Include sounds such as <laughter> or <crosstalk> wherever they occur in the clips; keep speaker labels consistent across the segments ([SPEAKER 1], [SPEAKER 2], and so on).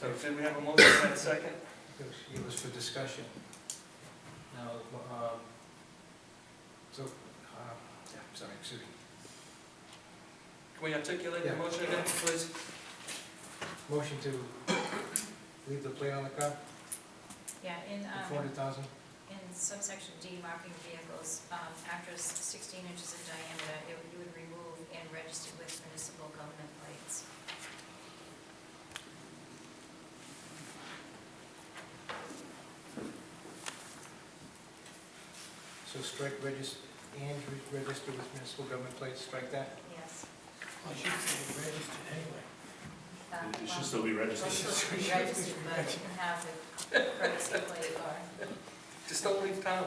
[SPEAKER 1] So did we have a motion and a second?
[SPEAKER 2] It was- It was for discussion. Now, um, so, uh, yeah, sorry, excuse me.
[SPEAKER 1] Can we articulate the
[SPEAKER 2] Yeah.
[SPEAKER 1] motion again, please?
[SPEAKER 2] Motion to leave the plate on the car,
[SPEAKER 3] Yeah, in,
[SPEAKER 2] the
[SPEAKER 3] um,
[SPEAKER 2] four hundred thousand?
[SPEAKER 3] in subsection D, marking vehicles, um, after s- sixteen inches in diameter, it would, you would remove and register with municipal government plates.
[SPEAKER 2] So strike register, and re- register with municipal government plates, strike that?
[SPEAKER 3] Yes.
[SPEAKER 4] I should say registered anyway.
[SPEAKER 3] Um,
[SPEAKER 5] It should
[SPEAKER 3] well,
[SPEAKER 5] still be
[SPEAKER 3] It's
[SPEAKER 5] registered.
[SPEAKER 3] supposed to be registered, but it can have the courtesy
[SPEAKER 6] <laughs>
[SPEAKER 3] plate or,
[SPEAKER 1] Just don't leave town.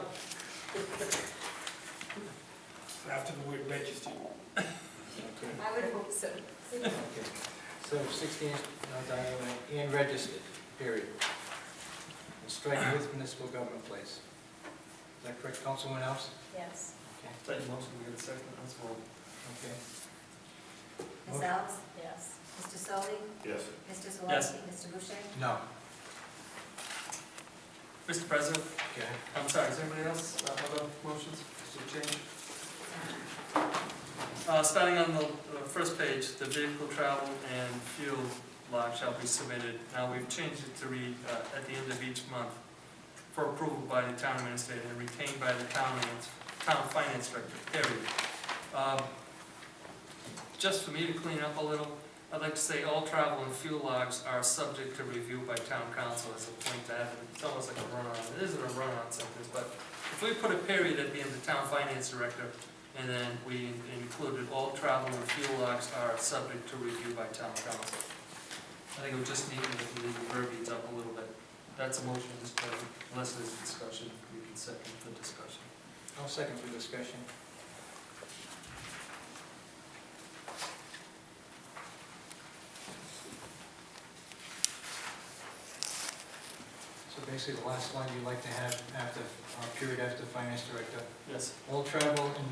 [SPEAKER 4] After the word registered.
[SPEAKER 3] I would hope so.
[SPEAKER 2] Okay. So sixteen inch uh, diameter and registered, period. And strike with municipal government plates. Is that correct, Councilman House?
[SPEAKER 3] Yes.
[SPEAKER 2] Okay,
[SPEAKER 1] Second motion, we have a second, let's vote.
[SPEAKER 2] okay.
[SPEAKER 6] Ms. Alves?
[SPEAKER 3] Yes.
[SPEAKER 6] Mr. Solly?
[SPEAKER 5] Yes.
[SPEAKER 6] Mr.
[SPEAKER 1] Yes.
[SPEAKER 6] Swansky? Mr. Boucher?
[SPEAKER 2] No,
[SPEAKER 1] Mr. President,
[SPEAKER 2] okay.
[SPEAKER 1] I'm sorry, is anybody else uh, have other motions to change? Uh, Starting on the uh, first page, the vehicle travel and fuel log shall be submitted. Now, we've changed it to read uh, at the end of each month for approval by the town administrator and retained by the town, finance- town finance director, period. Um, Just for me to clean up a little, I'd like to say all travel and fuel logs are subject to review by town council as a point to have, it's almost like a run-on, it isn't a run-on sentence, but if we put a period at the end of town finance director, and then we included all travel and fuel logs are subject to review by town council. I think it would just need to leave the verbiage up a little bit. That's a motion, Mr. President, unless there's discussion, we can second the discussion.
[SPEAKER 2] I'll second for discussion. So basically, the last line you'd like to have after, uh, period after finance director,
[SPEAKER 1] Yes.
[SPEAKER 2] all travel and,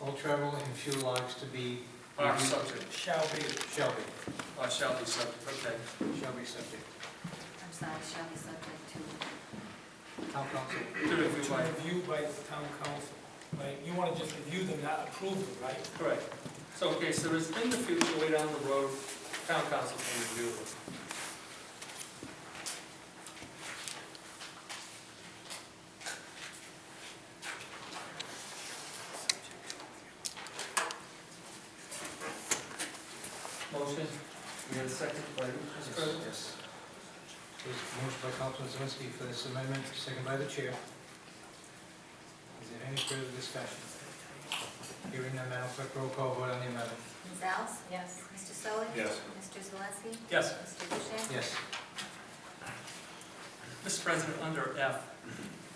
[SPEAKER 2] all travel and fuel logs to be,
[SPEAKER 1] Are subject,
[SPEAKER 4] Shall be.
[SPEAKER 2] shall be,
[SPEAKER 1] or shall be subject, okay.
[SPEAKER 2] shall be subject.
[SPEAKER 6] I'm sorry, shall be subject to.
[SPEAKER 2] Town council,
[SPEAKER 1] To review
[SPEAKER 4] To
[SPEAKER 1] by,
[SPEAKER 4] review by the town council. Right, you want to just review them, not approve them, right?
[SPEAKER 1] correct. So, okay, so there's in the future, way down the road, town council can review it. Motion, we have a second by Mr.
[SPEAKER 2] yes,
[SPEAKER 1] President.
[SPEAKER 2] yes. There's a motion by Councilman Zawinski for this amendment, second by the chair. Is there any further discussion? Hearing none, Madam Clerk, roll call vote on the amendment.
[SPEAKER 6] Ms. Alves?
[SPEAKER 3] Yes.
[SPEAKER 6] Mr. Solly?
[SPEAKER 5] Yes.
[SPEAKER 6] Mr. Swansky?
[SPEAKER 1] Yes.
[SPEAKER 6] Mr. Boucher?
[SPEAKER 2] Yes.
[SPEAKER 1] Mr. President, under F,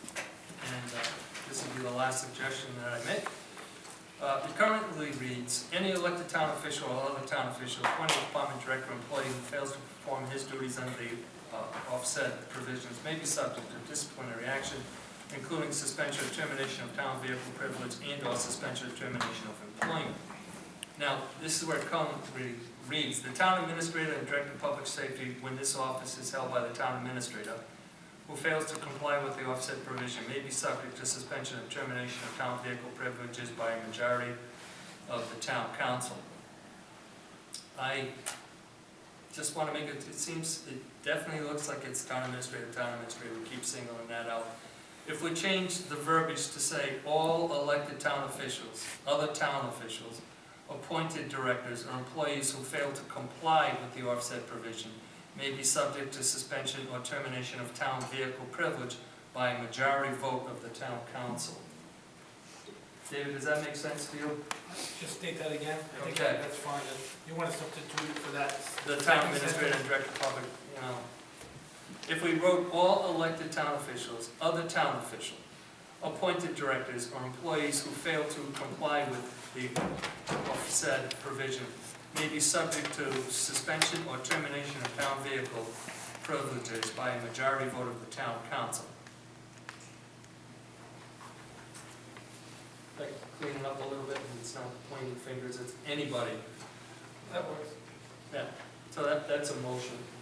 [SPEAKER 1] and uh, this will be the last suggestion that I make. Uh, It currently reads, "Any elected town official or other town official appointed department director or employee who fails to perform his duties under the uh, offset provisions may be subject to disciplinary action, including suspension or termination of town vehicle privilege and/or suspension or termination of employment." Now, this is where it currently reads, "The town administrator and director of public safety, when this office is held by the town administrator, who fails to comply with the offset provision may be subject to suspension and termination of town vehicle privileges by a majority of the town council. I just want to make it, it seems, it definitely looks like it's town administrator, town administrator, we keep singling that out. If we change the verbiage to say, all elected town officials, other town officials, appointed directors or employees who fail to comply with the offset provision may be subject to suspension or termination of town vehicle privilege by a majority vote of the town council. David, does that make sense to you?
[SPEAKER 4] Just state that again. I think
[SPEAKER 1] Okay.
[SPEAKER 4] That's fine. You want to substitute for that.
[SPEAKER 1] The town administrator and director of public, you know, if we wrote all elected town officials, other town official, appointed directors or employees who fail to comply with the said provision may be subject to suspension or termination of town vehicle privileges by a majority vote of the town council. Like, clean it up a little bit, and it's not pointing fingers, it's anybody.
[SPEAKER 4] That works.
[SPEAKER 1] So that, that's a motion.